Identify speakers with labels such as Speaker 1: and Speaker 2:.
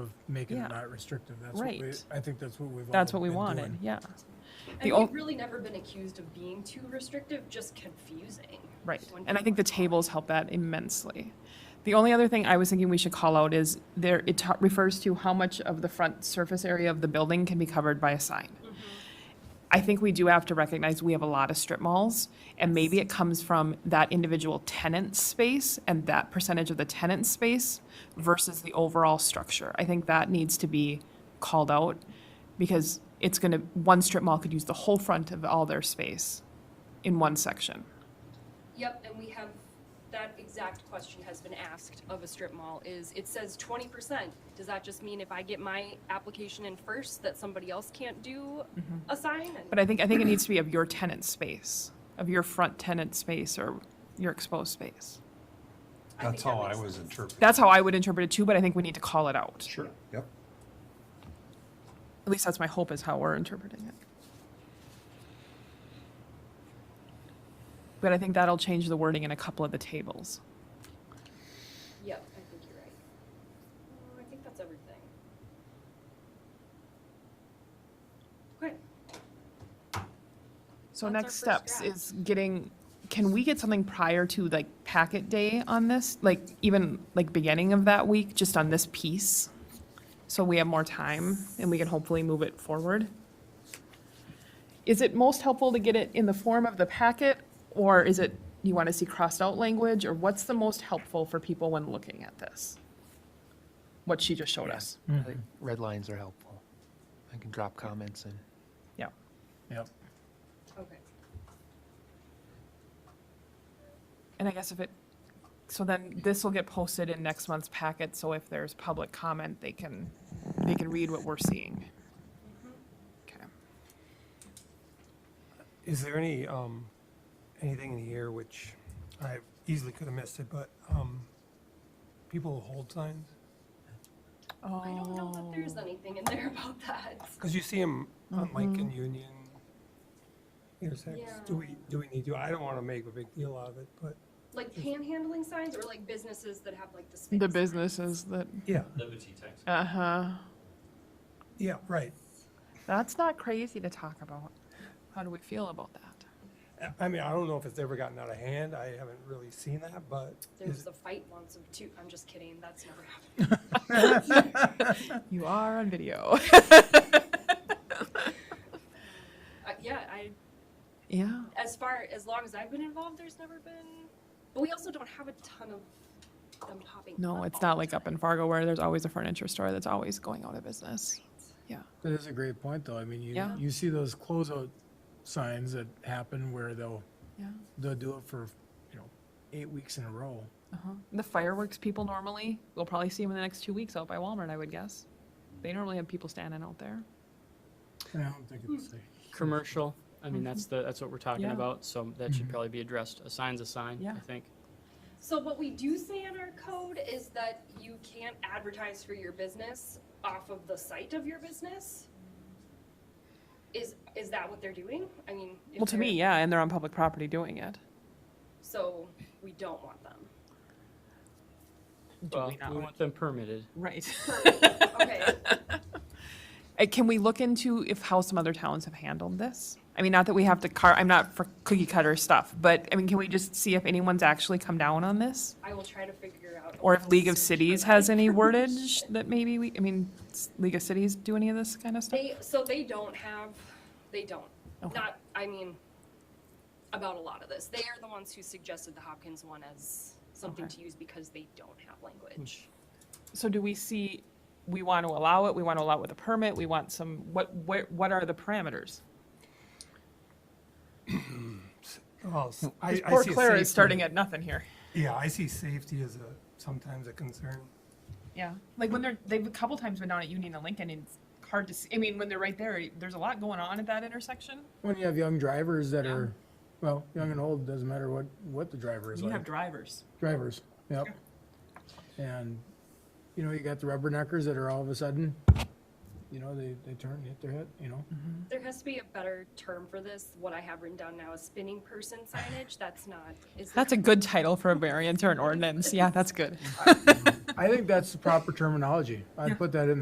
Speaker 1: of making
Speaker 2: Yeah.
Speaker 1: it not restrictive. That's what we,
Speaker 2: Right.
Speaker 1: I think that's what we've all
Speaker 2: That's what we
Speaker 1: been
Speaker 2: wanted,
Speaker 1: doing.
Speaker 2: yeah. The
Speaker 3: And
Speaker 2: ol-
Speaker 3: we've really never been accused of being too restrictive, just confusing.
Speaker 2: Right.
Speaker 3: When
Speaker 2: And I think the
Speaker 3: people-
Speaker 2: tables help that immensely. The only other thing I was thinking we should call out is there, it ta- refers to how much of the front surface area of the building can be covered by a sign. I think we do have to recognize we have a lot of strip malls, and maybe it comes from that individual tenant's space and that percentage of the tenant's space versus the overall structure. I think that needs to be called out because it's gonna, one strip mall could use the whole front of all their space in one section.
Speaker 3: Yep, and we have, that exact question has been asked of a strip mall is, it says twenty percent. Does that just mean if I get my application in first, that somebody else can't do a sign? And
Speaker 2: Mm-hmm. But I think, I think it needs to be of your tenant space, of your front tenant space or your exposed space.
Speaker 3: I think
Speaker 4: That's
Speaker 3: that
Speaker 4: how I
Speaker 3: makes
Speaker 4: was
Speaker 3: sense.
Speaker 4: interpreting.
Speaker 2: That's how I would interpret it too, but I think we need to call it out.
Speaker 4: Sure. Yep.
Speaker 2: At least that's my hope is how we're interpreting it. But I think that'll change the wording in a couple of the tables.
Speaker 3: Yep, I think you're right. Uh, I think that's everything. Okay,
Speaker 2: So
Speaker 3: That's our
Speaker 2: next
Speaker 3: first
Speaker 2: steps
Speaker 3: draft.
Speaker 2: is getting, can we get something prior to like packet day on this? Like even like beginning of that week, just on this piece? So we have more time and we can hopefully move it forward? Is it most helpful to get it in the form of the packet? Or is it, you want to see crossed out language? Or what's the most helpful for people when looking at this? What she just showed us.
Speaker 5: I think Red lines are helpful. I can drop comments in.
Speaker 2: Yeah.
Speaker 1: Yep.
Speaker 3: okay.
Speaker 2: And I guess if it, so then this will get posted in next month's packet, so if there's public comment, they can, they can read what we're seeing. Okay.
Speaker 6: Is there any, um, anything in here which I easily could have missed it, but, um, people hold signs?
Speaker 3: I don't know that there's
Speaker 2: Oh.
Speaker 3: anything in there about that.
Speaker 6: Cause you see them on
Speaker 2: Mm-hmm.
Speaker 6: Lincoln Union intersects. Do
Speaker 3: Yeah.
Speaker 6: we, do we need to? I don't wanna make a big deal out of it, but,
Speaker 3: Like panhandling signs or like businesses that have like the space?
Speaker 2: Oh, The businesses that,
Speaker 6: yeah,
Speaker 7: Liberty tax.
Speaker 2: uh-huh,
Speaker 6: yeah, right.
Speaker 2: that's not crazy to talk about. How do we feel about that?
Speaker 6: I- I mean, I don't know if it's ever gotten out of hand. I haven't really seen that, but
Speaker 3: There was
Speaker 6: is-
Speaker 3: a fight once of two, I'm just kidding, that's never happened.
Speaker 2: You are on video.
Speaker 3: Uh, yeah, I,
Speaker 2: Yeah.
Speaker 3: as far, as long as I've been involved, there's never been, but we also don't have a ton of them popping
Speaker 2: No,
Speaker 3: up
Speaker 2: it's
Speaker 3: all
Speaker 2: not
Speaker 3: the
Speaker 2: like up
Speaker 3: time.
Speaker 2: in Fargo where there's always a furniture store that's always going out of business. Yeah.
Speaker 1: That is a great point, though. I mean, you,
Speaker 2: Yeah.
Speaker 1: you see those closeout signs that happen where they'll,
Speaker 2: Yeah.
Speaker 1: they'll do it for, you know, eight weeks in a row.
Speaker 2: Uh-huh. The fireworks people normally, we'll probably see them in the next two weeks out by Walmart, I would guess. They normally have people standing out there.
Speaker 1: And I don't think it's safe.
Speaker 8: commercial. I mean, that's the, that's what we're talking
Speaker 2: Mm-hmm. Yeah.
Speaker 8: about, so that should probably be addressed. A sign's a sign,
Speaker 2: Yeah.
Speaker 8: I think.
Speaker 3: So what we do say in our code is that you can't advertise for your business off of the site of your business? Is, is that what they're doing? I mean. if
Speaker 2: Well, to me,
Speaker 3: they're-
Speaker 2: yeah, and they're on public property doing it.
Speaker 3: So we don't want them.
Speaker 8: Well,
Speaker 2: not
Speaker 8: we
Speaker 2: want-
Speaker 8: want them permitted.
Speaker 2: Right. Uh,
Speaker 3: Okay,
Speaker 2: Can we look into if, how some other towns have handled this? I mean, not that we have to car, I'm not for cookie cutter stuff, but, I mean, can we just see if anyone's actually come down on this?
Speaker 3: I will try to figure out.
Speaker 2: Or if League of
Speaker 3: Search for
Speaker 2: Cities
Speaker 3: that
Speaker 2: has any
Speaker 3: information.
Speaker 2: wordage that maybe we, I mean, s- League of Cities do any of this kind of stuff?
Speaker 3: They, so they don't have, they don't,
Speaker 2: Okay.
Speaker 3: not, I mean, about a lot of this. They are the ones who suggested the Hopkins one as something
Speaker 2: Okay. Mm-hmm.
Speaker 3: to use because they don't have language.
Speaker 2: So do we see, we want to allow it, we want to allow it with a permit, we want some, what, what, what are the parameters?
Speaker 6: well, Oh, s- I, I
Speaker 2: Because
Speaker 6: see.
Speaker 2: poor
Speaker 6: a
Speaker 2: Clara is
Speaker 6: safety-
Speaker 2: starting at nothing here.
Speaker 6: Yeah, I see safety as a, sometimes a concern.
Speaker 2: Yeah, like when they're, they've a couple times been down at Union and Lincoln and it's hard to see, I mean, when they're right there, there's a lot going on at that intersection.
Speaker 1: When you have young drivers that
Speaker 2: Yeah.
Speaker 1: are, well, young and old, doesn't matter what, what the driver is
Speaker 2: You have
Speaker 1: like.
Speaker 2: drivers.
Speaker 1: Drivers, yep. And, you know, you got the rubberneckers that are all of a sudden you know, they, they turn, hit their head, you know?
Speaker 3: There has to be a better term for this. What I have written down now is spinning person signage. That's not. Is
Speaker 2: That's a good title for a variance or an ordinance. Yeah, that's good.
Speaker 6: Mm-hmm.
Speaker 1: I think that's the proper terminology. I'd put that in there.